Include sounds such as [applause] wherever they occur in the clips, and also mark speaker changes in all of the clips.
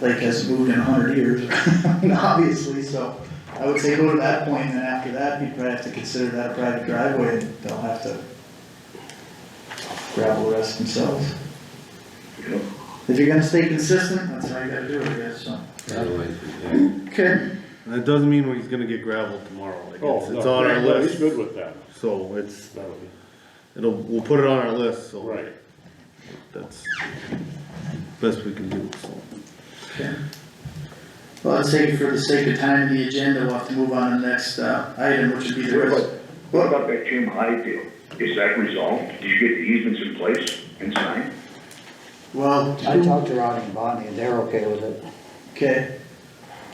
Speaker 1: lake has moved in a hundred years, [laughs] obviously, so I would say go to that point, and then after that, you'd probably have to consider that a private driveway, and they'll have to gravel the rest themselves. If you're gonna stay consistent, that's how you gotta do it, I guess, so. Okay,
Speaker 2: That doesn't mean he's gonna get gravel tomorrow, like,
Speaker 3: Oh,
Speaker 2: it's, it's
Speaker 3: no,
Speaker 2: on our
Speaker 3: no, he's
Speaker 2: list,
Speaker 3: good with that,
Speaker 2: so it's,
Speaker 3: that'll be,
Speaker 2: it'll, we'll put it on our list, so.
Speaker 3: right.
Speaker 2: That's best we can do, so.
Speaker 1: okay. Well, let's say for the sake of time and the agenda, we'll have to move on to the next, uh, item, which would be the rest.
Speaker 4: What about that Tim Hyde deal? Is that resolved? Did you get the easements in place and signed?
Speaker 1: Well,
Speaker 5: I talked to Ronnie and Bonnie, and they're okay with it.
Speaker 1: okay,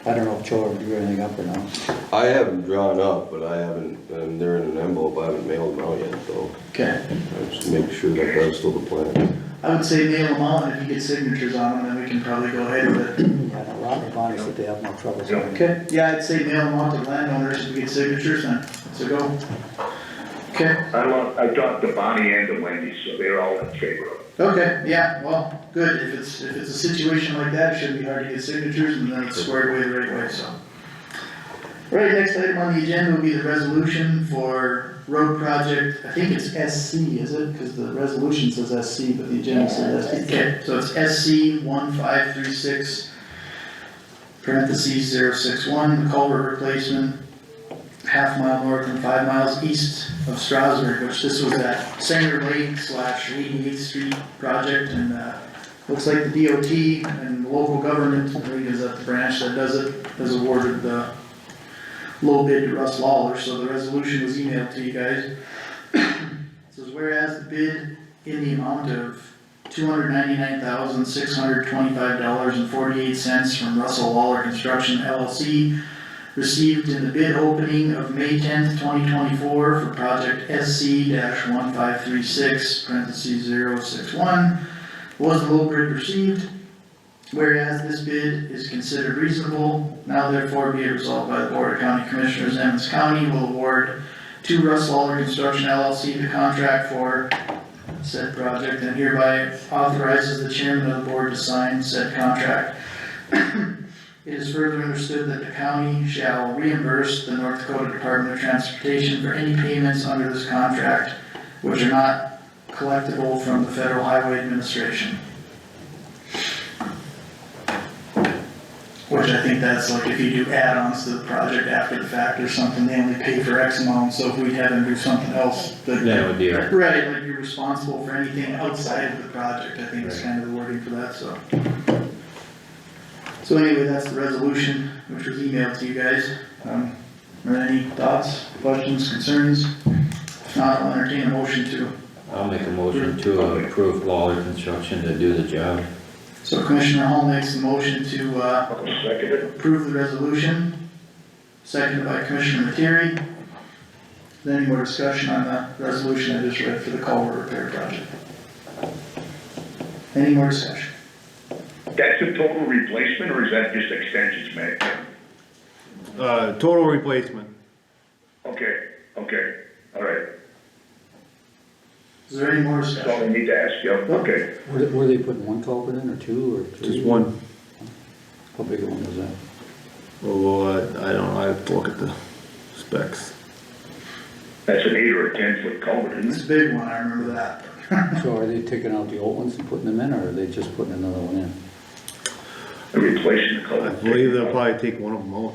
Speaker 5: I don't know if Joe drew anything up or not.
Speaker 6: I haven't drawn up, but I haven't, and they're in an envelope, I haven't mailed them out yet, so
Speaker 1: okay.
Speaker 6: I just make sure that that's still the plan.
Speaker 1: I would say nail them out, and if you get signatures on them, then we can probably go ahead with it.
Speaker 5: I know Ronnie and Bonnie said they have no trouble. signing it.
Speaker 1: Okay, yeah, I'd say nail them out to landowners, if we get signatures, then it's a go. Okay,
Speaker 4: I love, I talked to Bonnie and to Wendy, so they're all in favor of it.
Speaker 1: okay, yeah, well, good, if it's, if it's a situation like that, it shouldn't be hard to get signatures, and then it's squared away the right way, so. Right, next item on the agenda will be the resolution for road project, I think it's SC, is it? Cause the resolution says SC, but the agenda says SC. Okay, so it's SC one five three six, parentheses zero six one, culvert replacement, half mile north and five miles east of Strasburg, which this was that Sanger Lake slash eighty-eighth street project, and, uh, looks like the DOT and local government, I think is that the branch that does it, has awarded the low bid to Russ Lawler, so the resolution was emailed to you guys. It Says whereas the bid in the amount of two hundred ninety-nine thousand, six hundred twenty-five dollars and forty-eight cents from Russell Lawler Construction LLC received in the bid opening of May tenth, twenty twenty-four for project SC one five three six, parentheses zero six one, was the low bid received, Whereas this bid is considered reasonable, now therefore be it resolved by the Board of County Commissioners, Emmons County will award to Russ Lawler Construction LLC the contract for said project and hereby authorizes the chairman of the board to sign said contract. It is further understood that the county shall reimburse the North Dakota Department of Transportation for any payments under this contract which are not collectible from the Federal Highway Administration. Which I think that's like if you do add-ons to the project after the fact or something, they only pay for X amount, so if we have them do something else, that.
Speaker 7: would be
Speaker 1: Right, like you're responsible for anything outside of the project, I think is kind of the wording for that, so. So anyway, that's the resolution, which was emailed to you guys. Um, are there any thoughts, questions, concerns? If not, I'll entertain a motion to,
Speaker 7: I'll make a motion to approve Lawler Construction to do the job.
Speaker 1: so Commissioner Hall makes the motion to, uh,
Speaker 4: I'll second it.
Speaker 1: approve the resolution, seconded by Commissioner Materi. Is there Any more discussion on the resolution I just read for the culvert repair project? Any more discussion?
Speaker 4: That's a total replacement or is that just extensions, Matt?
Speaker 2: Uh, total replacement,
Speaker 4: Okay, okay, all right.
Speaker 1: Is there any more
Speaker 4: That's all
Speaker 1: discussion?
Speaker 4: I need to ask you. Okay.
Speaker 5: Were they- Were they putting one culvert in, or two, or three?
Speaker 2: just one,
Speaker 5: How big a one was that?
Speaker 2: well, uh, I don't, know, I have to look at the specs.
Speaker 4: That's an eight or a ten foot culvert, isn't
Speaker 1: It's
Speaker 4: it?
Speaker 1: a big one, I remember that. [laughs]
Speaker 5: So are they taking out the old ones and putting them in, or are they just putting another one in?
Speaker 4: They're Replacing the
Speaker 2: I
Speaker 4: culvert.
Speaker 2: believe they'll probably take one of them out.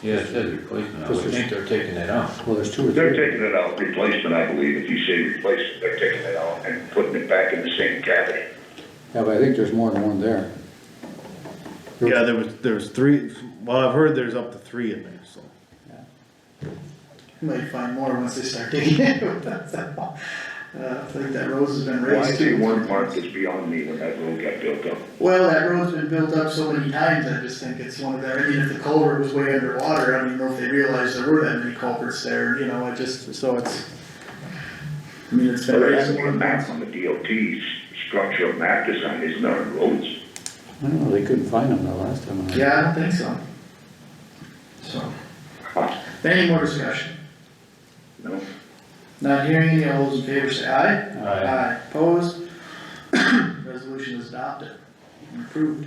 Speaker 7: Yeah, it says replacement, I
Speaker 5: Just
Speaker 7: would
Speaker 5: a-
Speaker 7: think they're taking it out.
Speaker 5: Well, there's two or
Speaker 4: They're
Speaker 5: three.
Speaker 4: taking it out, replacement, I believe. If you say replacement, they're taking it out and putting it back in the same cavity.
Speaker 5: Yeah, but I think there's more than one there.
Speaker 2: Yeah, there was, there was three, well, I've heard there's up to three in there, so.
Speaker 1: You might find more once they start digging it, [laughs] that's all. Uh, I think that rose has been
Speaker 4: Well, I
Speaker 1: raised
Speaker 4: see
Speaker 1: too.
Speaker 4: one mark is beyond me when that road got built up.
Speaker 1: Well, that road's been built up so many times, I just think it's one of the, I mean, if the culvert was way underwater, I don't even know if they realized there were that many culverts there, you know, I just, so it's. I mean, it's been
Speaker 4: But I
Speaker 1: raised
Speaker 4: have
Speaker 1: more
Speaker 4: a
Speaker 1: than
Speaker 4: map
Speaker 1: once.
Speaker 4: on the DOT's structural map design, isn't there, on roads?
Speaker 5: I don't know, they couldn't find them the last time. I-
Speaker 1: Yeah, I don't think so. So, any more discussion?
Speaker 4: No?
Speaker 1: Not hearing any, all those in favor say aye.
Speaker 7: Aye.
Speaker 1: [coughs] Aye, opposed? Resolution is adopted, and approved.